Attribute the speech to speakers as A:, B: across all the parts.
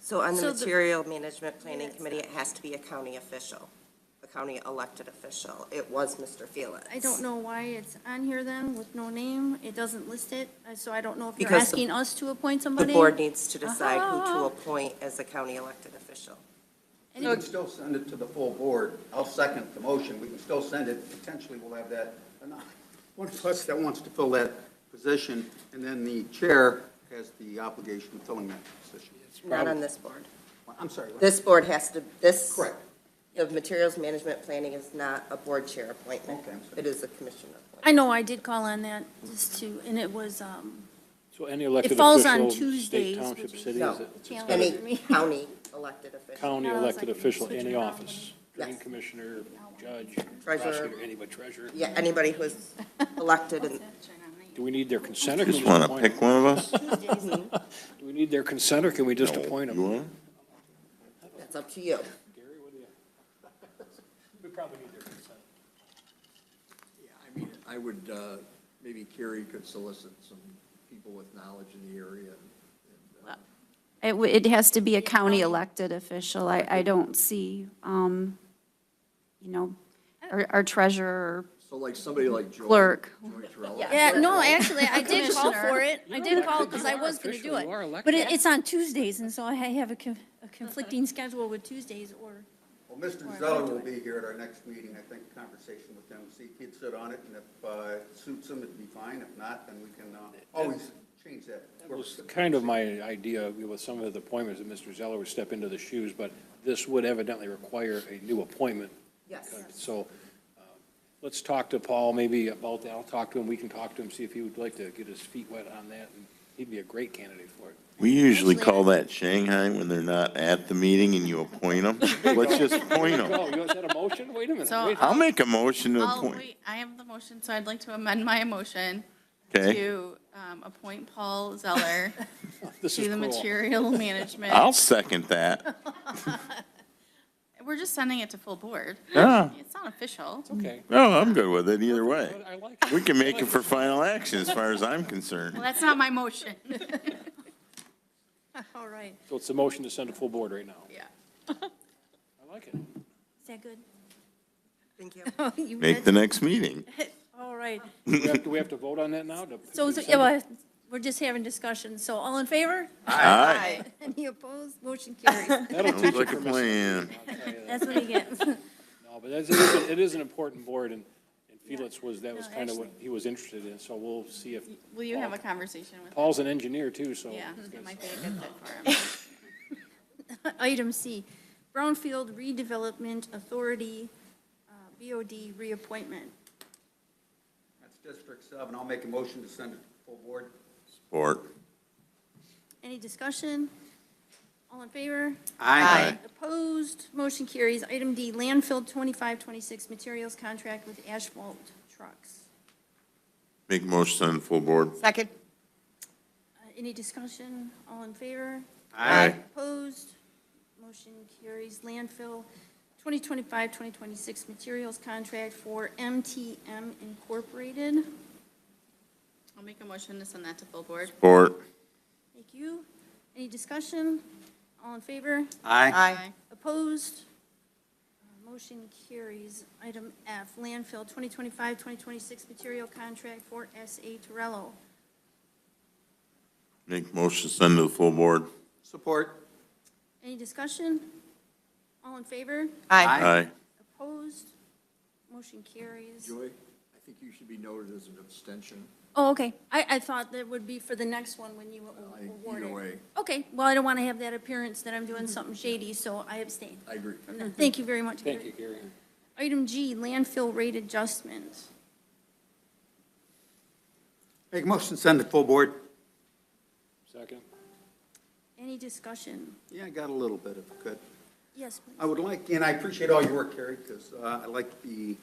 A: So on the
B: So the-
A: material management planning
B: Minutes,
A: committee, it has to be a county official, a county elected official. It was Mr. Felix.
B: I don't know why it's on here then with no name. It doesn't list it, uh, so I don't know if you're
A: Because the-
B: asking us to appoint
A: The
B: somebody.
A: board needs to decide who to
B: Uh-huh.
A: appoint as a county elected official.
B: And
C: We
B: it-
C: can still send it to the full board. I'll second the motion. We can still send it. Potentially, we'll have that, one of us that wants to fill that position, and then the chair has the obligation of filling that position.
A: Not on this board.
C: I'm sorry. what?
A: This board has to, this.
C: Correct.
A: The materials management planning is not a board chair appointment.
C: Okay, I'm sorry.
A: It is a commission appointment.
B: I know I did call on that just to, and it was, um,
D: So any elected
B: falls on
D: official,
B: Tuesdays,
D: state,
B: which
D: township,
B: is-
D: city,
A: No.
D: is it- it's
B: Challenge.
D: got
A: Any
D: a
B: me.
A: county elected official.
D: county
B: No, it's
D: elected
B: like
D: official,
B: switching
D: any
B: around.
D: office, drain
A: Yes.
D: commissioner, judge,
A: Treasurer.
D: prosecutor, anybody, treasurer.
A: Yeah, anybody who's elected and
D: Do we need their consent or can we
E: Just
D: just
E: want to
D: appoint
E: pick
D: them?
E: one of us?
D: Do we need their consent or can we just
E: No,
D: appoint
E: You
D: them?
E: want?
A: that's up to you.
D: Gary, what do you? We probably need their consent.
F: Yeah, I mean, I would, uh, maybe Carrie could solicit some people with knowledge in the area. and, uh,
G: It, w- it has to be a county elected official. I, I don't see, um, you know, our our treasurer,
F: So like somebody like Joy.
G: Clerk.
F: Joy Terrell.
B: yeah, no, actually, I did call
G: Commissioner.
B: for it. I did call because I
D: You are
B: was going to do
D: official.
B: it.
D: You are
B: But
D: elected.
B: it, it's on Tuesdays, and so I have a con- a conflicting schedule with Tuesdays or
C: Well, Mr. Zeller will be here at our next meeting, I think, conversation with him, see if he'd sit on it, and if uh, it suits him, it'd be fine. If not, then we can uh, always change that.
D: That was kind of my idea with some of the appointments, that Mr. Zeller would step into the shoes, but this would evidently require a new appointment.
A: Yes.
D: So um, let's talk to Paul maybe about that. I'll talk to him. We can talk to him, see if he would like to get his feet wet on that. and He'd be a great candidate for it.
E: We usually
B: Actually,
E: call that Shanghai when they're not at the meeting and you appoint them. Let's just appoint
D: Oh,
E: them.
D: you want that a motion? Wait a minute.
H: So-
D: wait.
E: I'll make a motion to
H: I'll
E: appoint,
H: wait, I have the motion, so I'd like to amend my motion
E: okay?
H: to um, appoint Paul Zeller
D: This is
H: to the
D: cruel.
H: material management.
E: I'll second that.
H: We're just sending it to full board.
E: Yeah.
H: It's not official.
D: Okay.
E: No, I'm good with it either way.
D: But I like it.
E: We can make it for final action as far as I'm concerned.
H: Well, that's not my motion.
B: All right.
D: So it's a motion to send a full board right now.
H: Yeah.
D: I like it.
B: Is that good?
A: Thank you.
B: You
E: Make
B: good?
E: the next meeting.
B: All right.
D: Do we have- Do we have to vote on that now? to-
B: So, so-
D: to send
B: yeah,
D: it?
B: well, we're just having discussions. So all in favor?
E: Aye.
B: Any opposed? Motion carries.
D: That'll teach
E: Sounds
D: you
E: like a
D: for
E: plan.
B: That's what he gets.
D: No, but that's, it is, an- it is an important board, and and Felix was, that was
B: No,
D: kind of what he was interested in, so we'll see if,
H: Will you have a conversation with,
D: Paul's an engineer too, so.
H: yeah,
D: it's
H: it
D: good.
H: might be a good fit for him.
B: Item C, Brownfield Redevelopment Authority, uh, BOD reappointment.
C: That's District Seven. I'll make a motion to send it to the full board.
E: Support.
B: Any discussion? All in favor?
E: Aye.
B: Opposed? Motion carries. Item D, landfill 2526 materials contract with asphalt trucks.
E: Make motion on full board.
A: Second.
B: Uh, Any discussion? All in favor?
E: Aye.
B: Opposed? Motion carries. Landfill 2025-2026 materials contract for MTM Incorporated.
H: I'll make a motion to send that to full board.
E: Support.
B: Thank you. Any discussion? All in favor?
H: Aye.
B: Opposed? Uh, Motion carries. Item F, landfill 2025-2026 material contract for S.A. Torello.
E: Make motion send to the full board.
C: Support.
B: Any discussion? All in favor?
E: Aye.
B: Opposed? Motion carries.
F: Joy, I think you should be noted as an abstention.
B: Oh, okay. I, I thought that would be for the next one when you
F: I-
B: awarded.
F: Uh, Either way,
B: Okay, well, I don't want to have that appearance that I'm doing something shady, so I abstain.
F: I agree.
B: Thank you very much.
D: Thank you, Gary.
B: Item G, landfill rate adjustment.
C: Make a motion to send it to full board.
D: Second.
B: Any discussion?
C: Yeah, I got a little bit if I could.
B: Yes,
C: I
B: please.
C: would like, and I appreciate all your work, Carrie, because I like the,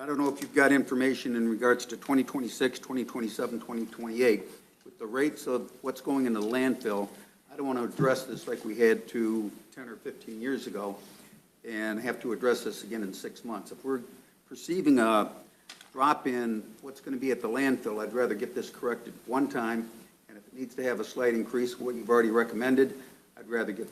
C: I don't know if you've got information in regards to 2026, 2027, 2028, with the rates of what's going into landfill, I don't want to address this like we had to 10 or 15 years ago, and have to address this again in six months. If we're perceiving a drop in what's going to be at the landfill, I'd rather get this corrected one time, and if it needs to have a slight increase, what you've already recommended, I'd rather get